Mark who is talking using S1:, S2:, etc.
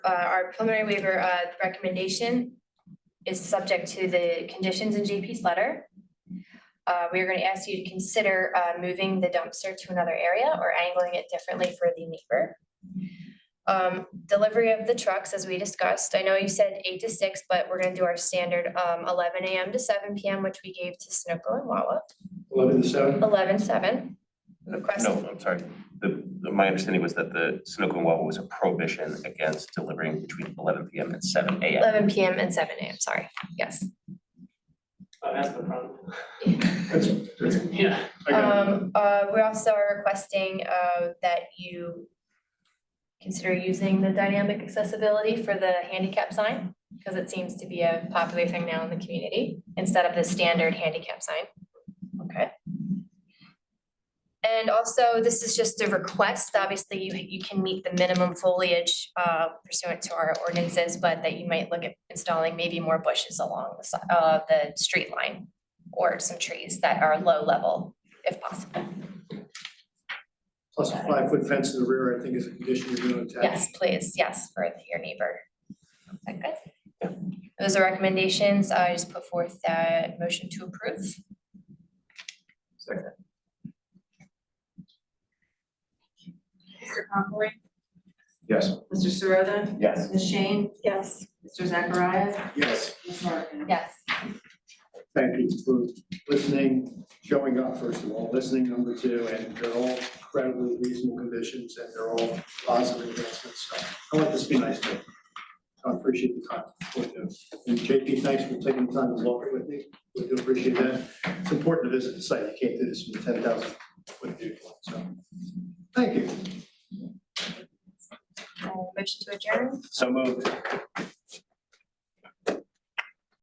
S1: uh, our preliminary waiver, uh, recommendation is subject to the conditions in JP's letter. Uh, we are gonna ask you to consider, uh, moving the dumpster to another area or angling it differently for the neighbor. Um, delivery of the trucks, as we discussed, I know you said eight to six, but we're gonna do our standard, um, eleven AM to seven PM, which we gave to Snooko and Wawa,
S2: Eleven to seven?
S1: eleven seven. Request,
S3: No, I'm sorry. The, the- my understanding was that the Sunoco and Wawa was a prohibition against delivering between eleven PM and seven AM.
S1: eleven PM and seven AM, sorry, yes.
S4: Oh, that's the problem.
S2: That's, that's,
S4: Yeah.
S2: I got it.
S1: Um, uh, we also are requesting, uh, that you consider using the dynamic accessibility for the handicap sign, because it seems to be a popular thing now in the community, instead of the standard handicap sign. Okay. And also, this is just a request, obviously, you, you can meet the minimum foliage, uh, pursuant to our ordinances, but that you might look at installing maybe more bushes along the, si- uh, the street line or some trees that are low level if possible.
S2: Plus a five-foot fence in the rear, I think is a condition you're gonna attach.
S1: Yes, please, yes, for your neighbor. Is that good? Those are recommendations. I just put forth that motion to approve.
S5: Mr. Conroy?
S2: Yes.
S5: Mr. Sirota,
S3: Yes.
S5: Ms. Shane? Yes. Mr. Zachariah?
S2: Yes,
S5: Ms. Larkin?
S1: Yes.
S2: thank you for listening, showing up, first of all, listening, number two, and they're all incredibly reasonable conditions, and they're all positive advancements, so I want this to be nice, but I appreciate the time. for this. And JP, thanks for taking the time to walk it with me, we do appreciate that. It's important to visit the site, you can't do this from ten thousand foot viewpoint, so, thank you.
S1: Uh, Motion to adjourn.
S3: So moved.